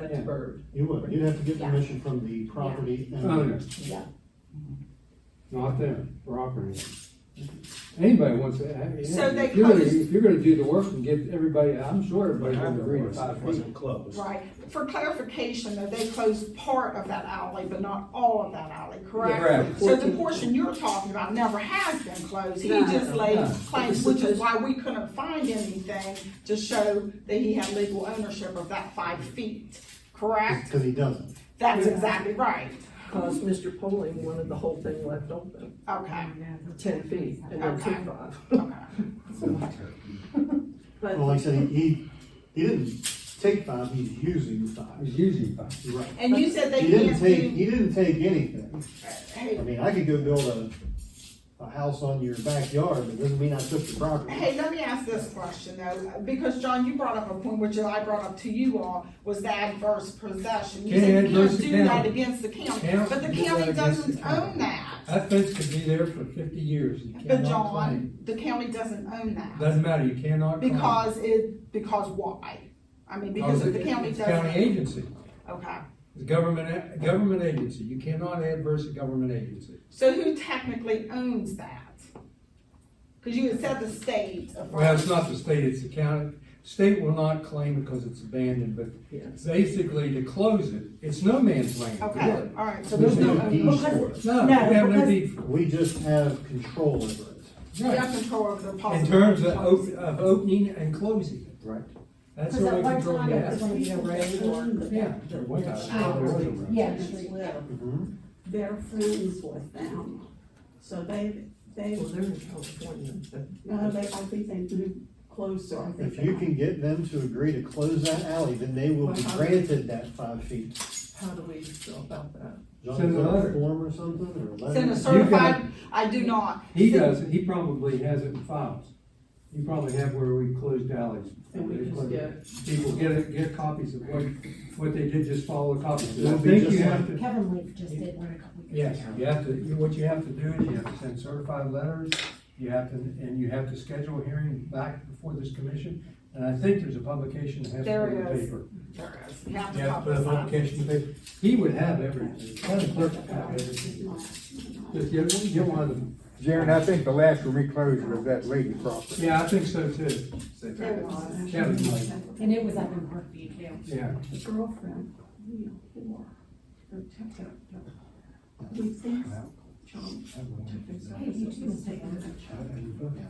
that's bird. You would, you'd have to get Yeah. permission from the property Owner, owner. Yeah. not them, property. Anybody wants to, I mean, So they if you're gonna, closed- if you're gonna do the work and get everybody, I'm sure everybody But I would agree to was, five it feet. wasn't closed. Right, for clarification, though, they closed part of that alley, but not all of that alley, correct? Correct. So the portion you're talking about never has been closed, he No. just laid No. claims, which is why we couldn't find anything to show that he had legal ownership of that five feet, correct? Cause he doesn't. That's Yeah. exactly right, Cause Mr. Poling wanted the whole thing left open, okay, ten feet and then Okay. two five. okay, But Well, like I said, he, he didn't take five, he's using It's five. usually five. You're right. and you said they He didn't can't take, do. he didn't take anything. I Hey, mean, I could go build a, a house on your backyard, but doesn't mean I took the property. Hey, let me ask this question though, because John, you brought up a point which I brought up to you all, was the adverse possession. You Yeah, said you can't adverse do that county. against the county, County but the can do that county against the doesn't county. own that. That fence could be there for fifty years, you But cannot claim. John, the county doesn't own that. Doesn't matter, you cannot claim. Oh, Because it, because why? I mean, because if the it- county it's a County doesn't, agency, okay. it's a government, a government agency, you cannot adverse a government agency. So who technically owns that? Cause you had said the state of. Well, it's not the state, it's the county, state will not claim because it's abandoned, but Yes. basically to close it, it's no man's land. Okay, alright, so There's there's no no, deed for it. No, we have no deed for We just have control over it. it. you have Right. control of the In possible. terms of op- of opening and closing it, Right. that's Because what at I one control time it was that. gonna be a road or. Yeah. there was a- out, there was a road. Yeah, Street Road. Mm-hmm. Mhm. They're friends with them. So they, they, Well, they're in California, but no, they, I think they moved closer, I think. If you can get them to agree to close that alley, then they will be granted that five feet. how do we go about that? John, Send is a that letter. Form or something, or a letter? Send a You can- certified, I do not. He does, it. he probably has it in files. You probably have where we closed alleys. And we just get- People get it, get copies of what, what they did, just follow the copies. It'll I be think just you have to, Kevin Leaf just did one a couple weeks ago. yes, you have to, you- what you have to do is you have to send certified letters, you have to, and you have to schedule a hearing back before this commission. And I think there's a publication that has to There go in the is. paper. There is. You have to You have to put a publicize. publication in the paper. He would have everything, county clerk would have everything. Just get, get one of them. Jared, I think the last one we closed was that lady property. Yeah, I think so too. There was. Kevin might. And it was up in Brookview too. Yeah. The girlfriend, you know, or, or took that, that, he thinks, John, took his Hey, you two will take one.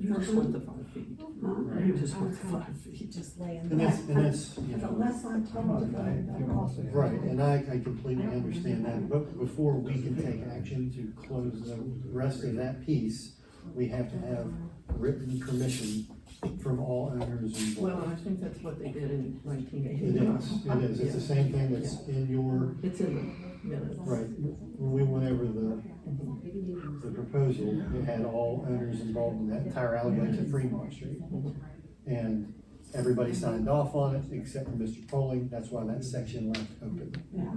You just want the five feet. Huh? You just want the five feet. Just laying And that's, there. and that's, you know. Unless I'm told to go, that off. Right, and I, I completely understand that, but before we can take action to close the rest of that piece, we have to have written permission from all owners Well, involved. I think that's what they did in nineteen It eighty-nine. is, it is, it's the same thing that's in your, It's in the minutes. right, when we went over the, the proposal, it had all owners involved in that entire alleyway to Fremont Street. And everybody signed off on it except for Mr. Poling, that's why that section left open. Yeah.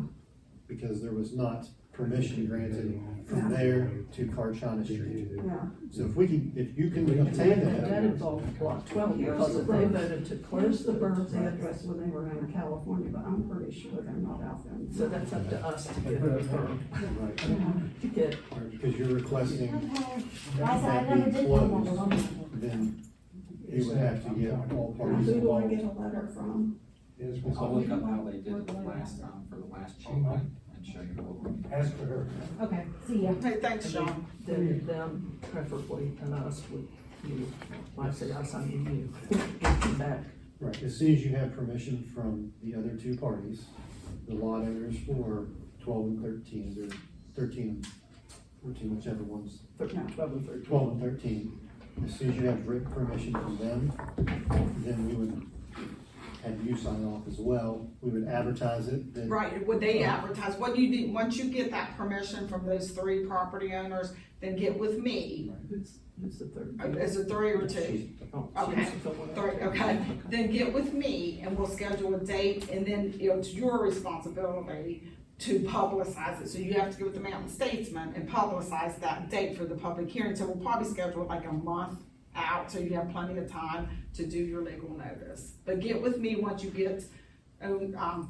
because there was not permission granted from there to Karchana Street. Yeah. So if we can, if you can obtain And that that, involved block twelve, because if they voted to Where's close the the bird's birds, address when they were in California, but I'm pretty sure they're not out there. so that's up to us to get, to right, get because you're requesting, Okay. Why, is that- I never did come on the one. then you would have to get all Who parties do I involved. get a letter from? Yes, I'll we'll- look up how they did it the last time, for the last She might. check and show you what we. ask for her. Okay, see ya. Hey, thanks, John. them, them preferably, and us with you. When I say us, I mean you. Come Back. Right, as soon as you have permission from the other two parties, the lot owners for twelve and thirteen, or thirteen, fourteen, whichever ones, Thirteen, twelve and thirteen. twelve and thirteen, as soon as you have written permission from them, then we would have you sign off as well, we would advertise it, then. Right, would they advertise, what you do, once you get that permission from those three property owners, then get with me. Who's, who's the third? Uh, Is it three or two? Oh, Okay, she's the one. Three, okay. Then get with me and we'll schedule a date and then it's your responsibility to publicize it. So you have to go with the Mountain Statesman and publicize that date for the public hearing. So we'll probably schedule it like a month out, so you have plenty of time to do your legal notice. But get with me once you get own, um,